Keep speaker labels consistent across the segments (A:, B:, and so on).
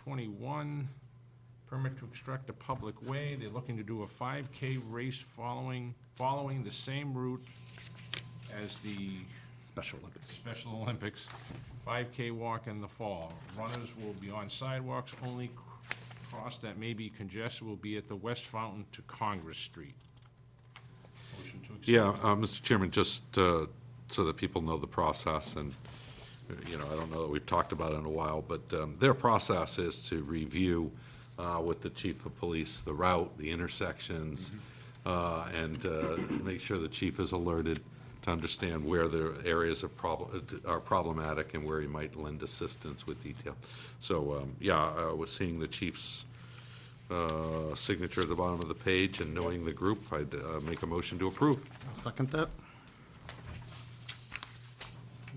A: 2021. Permit to extract a public way. They're looking to do a 5K race following, following the same route as the
B: Special Olympics.
A: Special Olympics, 5K walk in the fall. Runners will be on sidewalks, only c- cross that may be congested will be at the West Fountain to Congress Street. Motion to accept.
B: Yeah, uh, Mr. Chairman, just uh, so that people know the process, and, uh, you know, I don't know that we've talked about it in a while, but um, their process is to review uh, with the chief of police the route, the intersections, uh, and uh, make sure the chief is alerted to understand where the areas of problem, are problematic and where he might lend assistance with detail. So, um, yeah, I was seeing the chief's uh, signature at the bottom of the page and knowing the group, I'd uh, make a motion to approve.
C: Second that?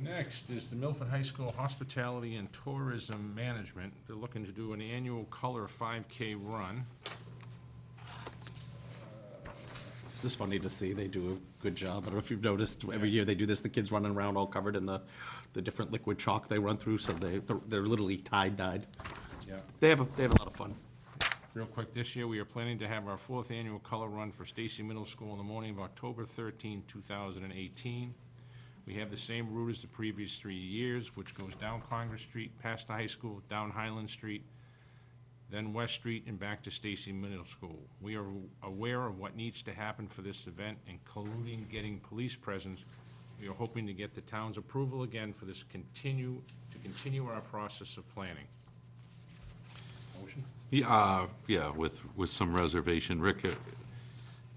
A: Next is the Milford High School Hospitality and Tourism Management. They're looking to do an annual color 5K run.
C: It's just funny to see. They do a good job. I don't know if you've noticed, every year they do this, the kids running around all covered in the, the different liquid chalk they run through, so they, they're- they're literally tie-dyed.
A: Yeah.
C: They have, a they have a lot of fun.
A: Real quick, this year, we are planning to have our fourth annual color run for Stacy Middle School on the morning of October 13, 2018. We have the same route as the previous three years, which goes down Congress Street, past the high school, down Highland Street, then West Street, and back to Stacy Middle School. We are aware of what needs to happen for this event, including getting police presence. We are hoping to get the town's approval again for this continue, to continue our process of planning. Motion?
B: Yeah, uh, yeah, with, with some reservation. Rick, uh,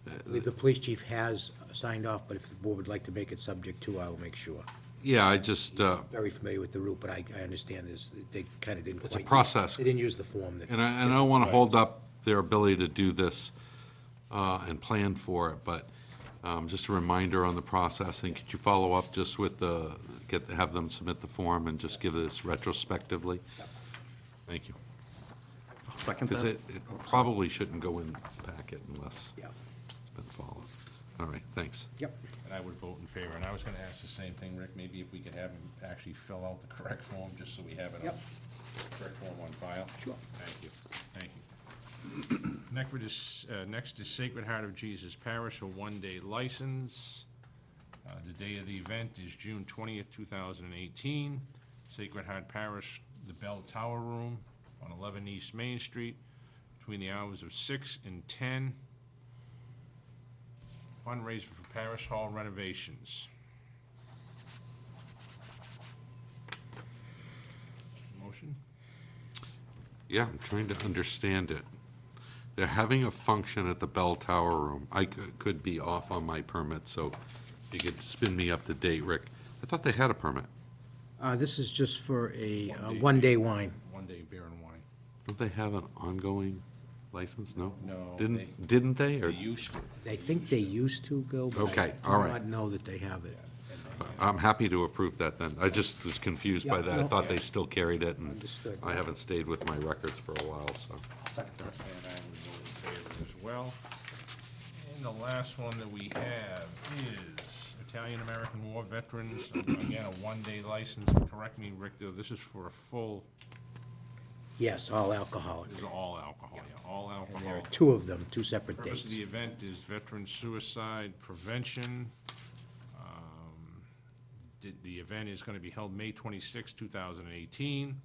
D: I believe The police chief has signed off, but if the board would like to make it subject to, I will make sure.
B: yeah, I just, uh,
D: Very familiar with the route, but I, I understand this, they kind of didn't quite.
B: It's a process.
D: They didn't use the form that.
B: and I, and I don't want to hold up their ability to do this uh, and plan for it, but um, just a reminder on the process, and could you follow up just with the, get, have them submit the form and just give this retrospectively? Thank you.
C: Second
B: Because
C: that?
B: it, it probably shouldn't go in the packet unless
D: Yeah.
B: it's been followed. All right, thanks.
D: Yep.
A: And I would vote in favor, and I was gonna ask the same thing, Rick, maybe if we could have him actually fill out the correct form, just so we have it on,
D: Yep.
A: correct form on file.
D: Sure.
A: Thank you, thank you. Next is, uh, next is Sacred Heart of Jesus Parish, a one-day license. Uh, the day of the event is June twentieth, two thousand and eighteen. Sacred Heart Parish, the Bell Tower Room on eleven East Main Street, between the hours of six and ten fundraiser for Parish Hall renovations. Motion?
B: Yeah, I'm trying to understand it. They're having a function at the Bell Tower Room. I could could be off on my permit, so if you could spin me up to date, Rick. I thought they had a permit.
D: Uh, this is just for a, uh,
A: One day.
D: one-day wine.
A: One day beer and wine.
B: Don't they have an ongoing license? No?
A: No,
B: Didn't, didn't they? Or,
A: used to.
D: I think they used to, Bill, but I
B: Okay,
D: do
B: all right.
D: not know that they have it.
B: I'm happy to approve that then. I just was confused by
D: Yeah,
B: that. I
D: no.
B: thought they still carried it, and
D: Understood.
B: I haven't stayed with my records for a while, so.
C: Second that.
A: And I would vote in favor as well. And the last one that we have is Italian-American War Veterans, again, a one-day license. Correct me, Rick, though, this is for a full,
D: Yes, all alcoholic.
A: this is all alcohol, yeah, all
D: And there are
A: alcohol.
D: two of them, two separate
A: Purpose of
D: dates.
A: the event is veteran suicide prevention. Um, The, the event is gonna be held May 26, thousand and eighteen.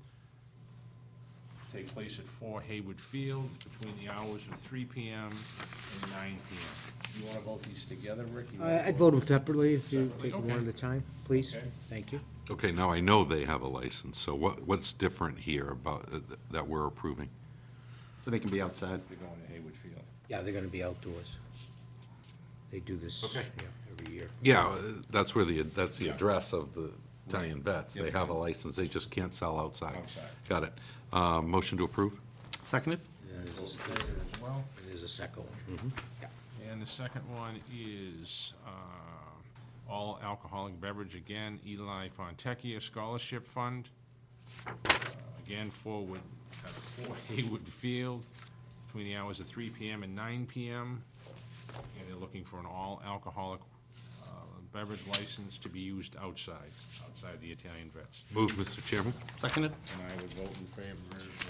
A: Take place at four Haywood Field between the hours of three PM and nine PM. You wanna vote these together, Rick? You
D: Uh,
A: wanna
D: I'd vote them separately if you take
A: Okay.
D: one at a time, please.
A: Okay.
D: Thank you.
B: Okay, now I know they have a license, so what, what's different here about, uh, that we're approving?
C: So they can be outside.
A: They're going to Haywood Field.
D: Yeah, they're gonna be outdoors. They do this, yeah, every year.
B: Yeah, uh, that's where the, that's the
A: Yeah.
B: address of the Italian vets. They
A: Yep.
B: have a license, they just can't sell outside.
A: Outside.
B: Got it. Uh, Motion to approve?
C: Seconded?
D: And
A: Vote in
D: there's
A: favor as well.
D: a- There's a second one.
A: And the second one is uh, all alcoholic beverage, again, Eli Fontecchio Scholarship Fund. Uh, Again, forward, at four Haywood Field, between the hours of three PM and nine PM. And they're looking for an all alcoholic uh, beverage license to be used outside, outside the Italian Vets.
B: Move, Mr. Chairman?
C: Seconded?
A: And I would vote in favor as well.